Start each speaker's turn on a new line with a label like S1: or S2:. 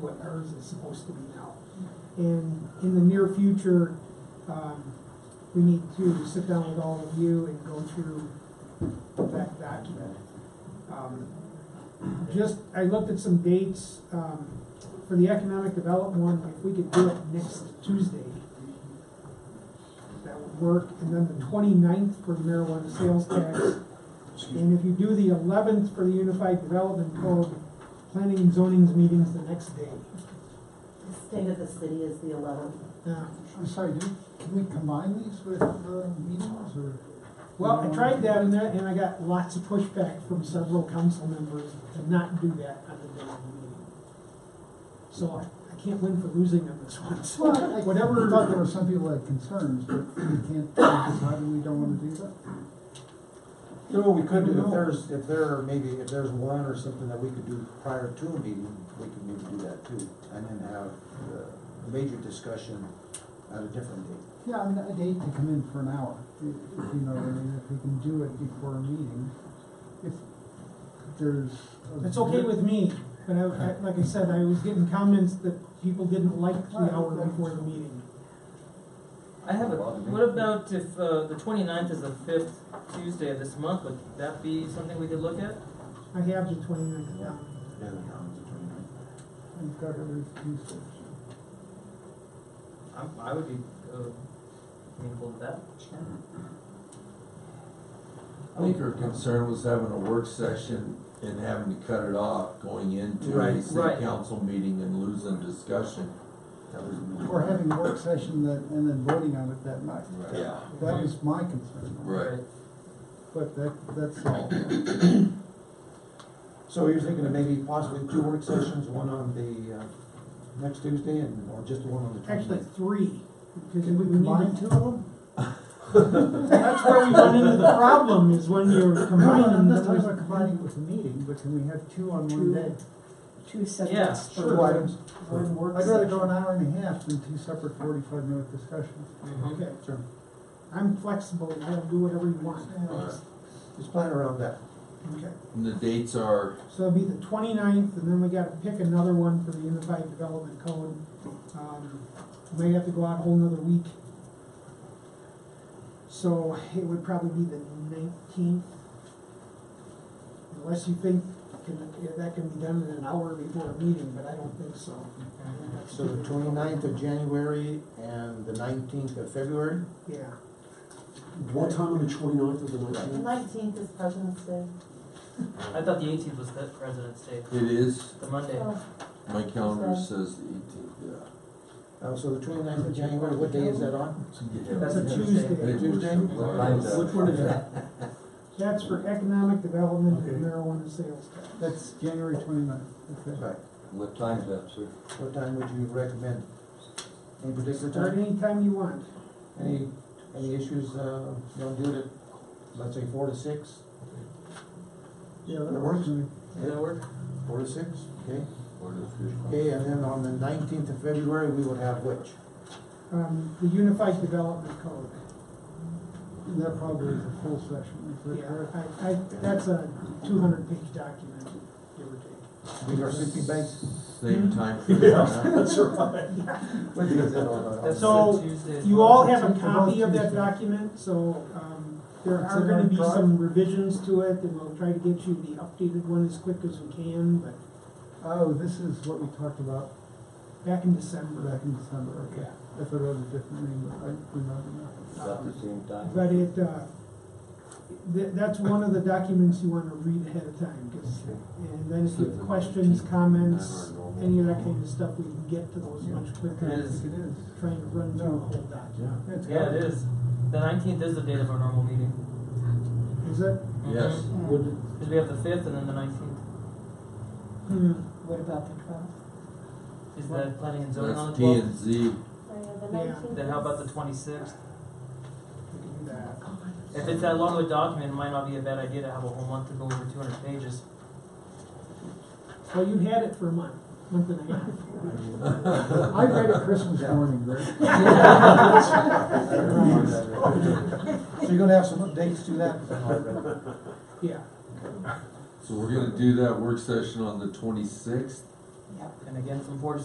S1: what hers is supposed to be now. And in the near future, um, we need to sit down with all of you and go through that document. Um, Just, I looked at some dates, um, for the economic development one, if we could do it next Tuesday, that would work, and then the 29th for the marijuana sales tax, and if you do the eleventh for the Unified Development Code, planning and zoning's meeting's the next day.
S2: The state of the city is the eleventh.
S1: Now,
S3: I'm sorry, do, can we combine these with uh, meetings or?
S1: Well, I tried that and that, and I got lots of pushback from several council members to not do that on the day of the meeting. So I, I can't win for losing on this one, so
S3: Well, I
S1: whatever,
S3: thought there were some people that had concerns, but we can't decide we don't wanna do that.
S4: You know, what we could, do,
S3: No.
S4: if there's, if there are maybe, if there's one or something that we could do prior to a meeting, we could maybe do that too. And then have the major discussion at a different date.
S3: Yeah, I mean, I'd hate to come in for an hour, i- if you know, what I mean, if we can do it before a meeting, if there's. a-
S1: it's okay with me. But I, I- like I said, I was getting comments that people didn't like the hour before the meeting.
S5: I have a, what about if, uh, the twenty-ninth is the fifth Tuesday of this month, would that be something we could look at?
S1: I have the twenty-ninth down.
S3: I've got every Tuesday.
S5: I, I would be, uh, amenable to that.
S6: I think her concern was having a work session and having to cut it off going into
S4: Right,
S6: a city
S5: right.
S6: council meeting and losing discussion.
S4: That was-
S3: Or having a work session that, and then voting on it that night.
S6: Yeah.
S3: That was my concern.
S6: Right.
S3: But that, that's all.
S4: So you're thinking of maybe possibly two work sessions, one on the, uh, next Tuesday and, or just one on the
S1: Actually,
S4: twenty-ninth?
S1: three. because
S3: Can we
S1: need to-
S3: combine two of them?
S1: That's where we run into the problem is when you're
S3: No, no, I'm
S1: combining
S3: not talking about
S1: numbers.
S3: combining with the meeting, but can we have two on
S1: Two.
S3: one day?
S7: two
S5: Yeah,
S7: subjects
S4: Two
S7: for
S4: items,
S7: one work
S3: I'd rather
S7: session.
S3: go an hour and a half than two separate forty-five minute discussions.
S5: Mm-hmm.
S1: Okay,
S4: sure.
S1: I'm flexible, I'll do whatever you want.
S6: Alright.
S4: Just plan around that.
S1: Okay.
S6: And the dates are,
S1: So it'll be the 29th, and then we gotta pick another one for the Unified Development Code. Um, May have to go out a whole nother week. So it would probably be the 19th. Unless you think can- if that can be done in an hour before a meeting, but I don't think so. I think that's-
S4: So the twenty-ninth of January and the nineteenth of February?
S1: Yeah.
S8: What time on the twenty-ninth of the
S2: The
S8: nineteenth?
S2: nineteenth is President's Day.
S5: I thought the eighteenth was the President's Day,
S6: it is,
S5: the Monday.
S2: Oh,
S6: my calendar says the eighteenth,
S4: Uh, so the twenty-ninth of January, what day is that on?
S6: yeah.
S5: That's a
S6: I think
S1: Tuesday.
S6: we're still
S4: Tuesday?
S6: aligned up.
S8: Which one is that?
S1: That's for economic development and
S8: Okay.
S1: marijuana sales tax.
S3: That's January twenty-ninth, okay.
S4: Right.
S6: What time's that, sir?
S4: What time would you recommend? Any particular
S1: Start
S4: time?
S1: anytime you want.
S4: Any, any issues, uh, you don't do it at, let's say, four to six?
S3: Yeah,
S4: That
S3: that
S4: works.
S3: works. for me.
S5: Does that work?
S4: Four to six, okay.
S6: Or the
S4: Okay, and then on the nineteenth of February, we will have which?
S1: Um, the Unified Development Code.
S3: And that probably is a full session, is that
S1: Yeah,
S3: correct?
S1: I, I, that's a two hundred page document, give or take.
S4: We are city bank.
S6: Same
S5: Hmm.
S6: time.
S8: That's right.
S4: What day is that on?
S5: That's
S1: So,
S5: the Tuesday.
S1: You all have a copy of that document, so, um, there are gonna be some revisions to it, and we'll try to get you the updated one as quick as we can, but
S3: Oh, this is what we talked about
S1: back in December.
S3: back in December, okay.
S1: Yeah.
S3: If I wrote a different name, but I remember now.
S1: Um,
S6: same
S1: But it, uh, th- that's one of the documents you wanna read ahead of time, 'cause- and then if you have questions, comments, any of that kind of stuff, we can get to those much quicker.
S5: It
S3: Yes,
S5: is.
S3: it is.
S1: Trying to run through the whole document.
S3: It's
S5: Yeah,
S3: got-
S5: it is. The nineteenth is the date of our normal meeting.
S1: Is that,
S6: Yes,
S2: yeah.
S5: Cause we have the fifth and then the nineteenth.
S1: hmm,
S2: What about the twelfth?
S5: Is that planning and zoning on the
S6: that's T
S5: twelfth?
S6: and Z.
S2: The
S1: Yeah.
S2: nineteenth.
S5: Then how about the twenty-sixth?
S1: we can do that.
S5: If it's that long of a document, it might not be a bad idea to have a whole month to go over two hundred pages.
S1: Well, you had it for a month, month and a half.
S3: I read it Christmas morning, right?
S4: So you're gonna have some updates to that?
S1: Yeah,
S6: So we're gonna do that work session on the twenty-sixth,
S2: Yep.
S5: and again from four to